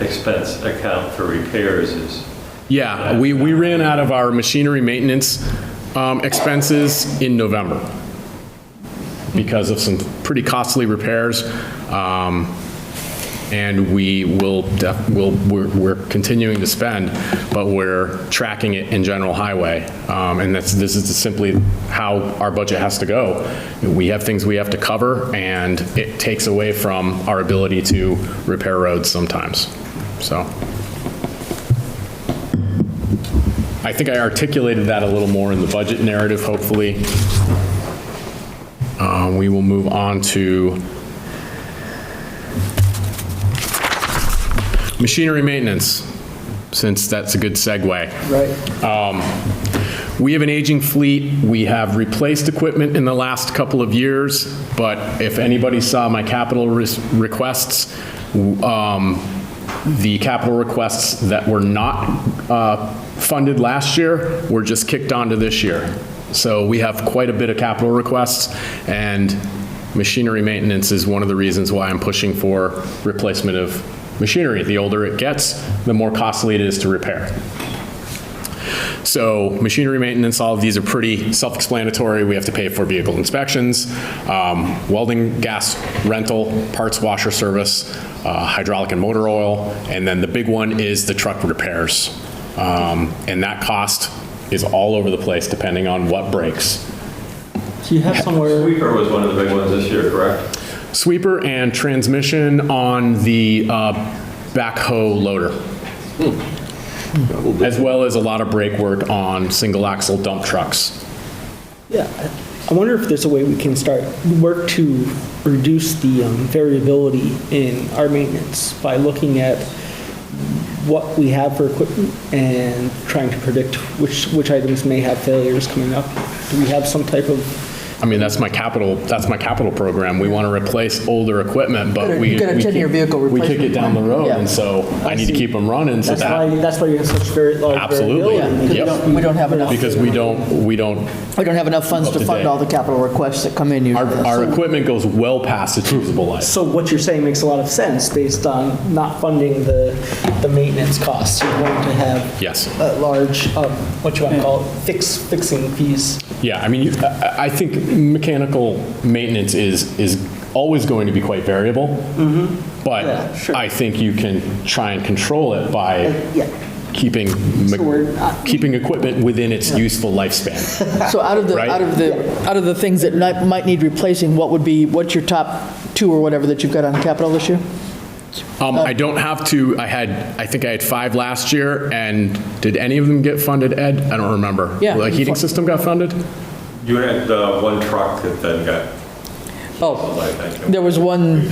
expense account for repairs is, Yeah, we, we ran out of our machinery maintenance um, expenses in November because of some pretty costly repairs. um, And we will, def- will, we're we're continuing to spend, but we're tracking it in general highway. Um, And that's, this is simply how our budget has to go. We have things we have to cover, and it takes away from our ability to repair roads sometimes, so. I think I articulated that a little more in the budget narrative, hopefully. Uh, We will move on to machinery maintenance, since that's a good segue. Um, Right. We have an aging fleet. We have replaced equipment in the last couple of years, but if anybody saw my capital res- requests, w- um, the capital requests that were not uh, funded last year were just kicked onto this year. So we have quite a bit of capital requests, and machinery maintenance is one of the reasons why I'm pushing for replacement of machinery. The older it gets, the more costly it is to repair. So machinery maintenance, all of these are pretty self-explanatory. We have to pay for vehicle inspections, um, welding, gas rental, parts washer service, uh, hydraulic and motor oil, and then the big one is the truck repairs. Um, And that cost is all over the place depending on what breaks. So you have somewhere, sweeper was one of the big ones this year, correct? Sweeper and transmission on the uh, backhoe loader. As well as a lot of brake work on single axle dump trucks. yeah, I wonder if there's a way we can start, work to reduce the um, variability in our maintenance by looking at what we have for equipment and trying to predict which, which items may have failures coming up. Do we have some type of, I mean, that's my capital, that's my capital program. We want to replace older equipment, but Gotta- we. you gotta we check keep- your vehicle We kick it replacement down the plan. road, Yeah. and so I need to see. keep them running, so that's why, that, that's why you have such very large Absolutely. variability. Yeah, 'cause we don't- we don't have enough. because we don't, we don't, We don't have enough funds Up to to fund date. all the capital requests that come in our, usually. our So- equipment goes well past its usable life. So what you're saying makes a lot of sense based on not funding the, the maintenance costs. You're going to have. Yes. A large, um, what you want to call it, fix, fixing fees. Yeah, I mean, you- I I think mechanical maintenance is, is always going to be quite variable. Mm-hmm. Yeah, But sure. I think you can try and control it by yeah. keeping, me- So we're uh, not- keeping equipment within its useful lifespan. So out of the, Right? out of the, out of the things that might, might need replacing, what would be, what's your top two or whatever that you've got on capital this year? Oh. Um, I don't have to, I had, I think I had five last year, and did any of them get funded, Ed? I don't remember. Yeah. The heating system got funded? You had the one truck that then got, Oh, like, I think, there was one,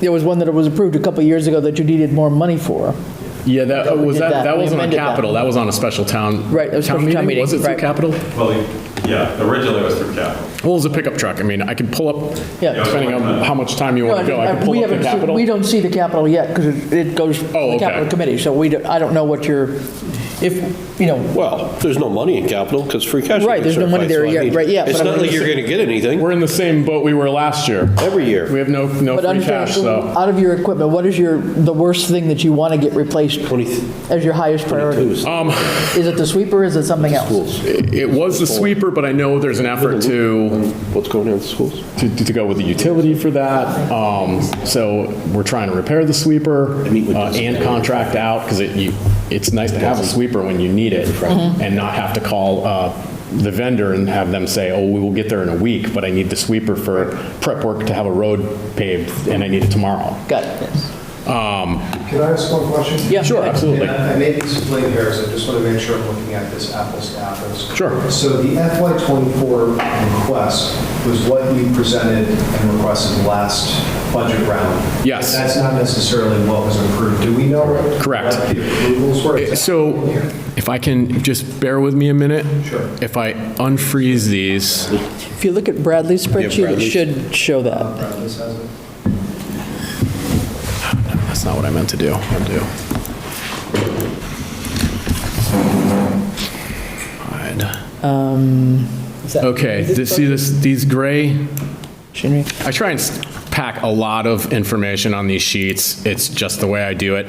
there was one that was approved a couple of years ago that you needed more money for. Yeah, that, we was did that, that. that We wasn't on amended that. capital, that was on a special town. Right, it was special town meeting, Was it through right. capital? well, yeah, originally it was through capital. Well, it was a pickup truck, I mean, I could pull up, Yeah. depending on how much time you want to go, I could We pull up the haven't seen- capital. We don't see the capital yet because it goes to Oh, the okay. capital committee. So we, don't- I don't know what your, if, you know, Well, there's no money in capital because free cash. Right, there's no money there yet, right, yeah, It's but I not mean- like you're going to get anything We're in the same boat we were last year. every year. We have no, no but free understand, cash, so. out of your equipment, what is your, the worst thing that you want to get replaced as your highest priority? Who's- Um, Is it the sweeper, is it something else? Schools. it it was the sweeper, but I know there's an effort to What's going on with schools? to, to go with the utility for that. Um, so we're trying to repair the sweeper meet with uh, this- and contract out because it, you, it's nice to have a sweeper when you need it and not have to call, uh, the vendor and have them say, oh, we will get there in a week, but I need the sweeper for prep work to have a road paved and I need it tomorrow. Got it. Can I ask one question? Yeah. Sure, absolutely. And I I may be splitting hairs, I just want to make sure I'm looking at this apples to apples. Sure. So the FY '24 request was what you presented and requested last budget round? Yes. That's not necessarily what was approved. Do we know? what- Correct. Eh, What the approvals were? Is that So in here? if I can, just bear with me a minute. Sure. If I unfreeze these. If you look at Bradley's spreadsheet, it Bradley's. should show that. Uh, this has it. That's not what I meant to do. I'll do. Is that- Okay, is this this, see this, these gray, Shouldn't we? I try and s- pack a lot of information on these sheets. It's just the way I do it.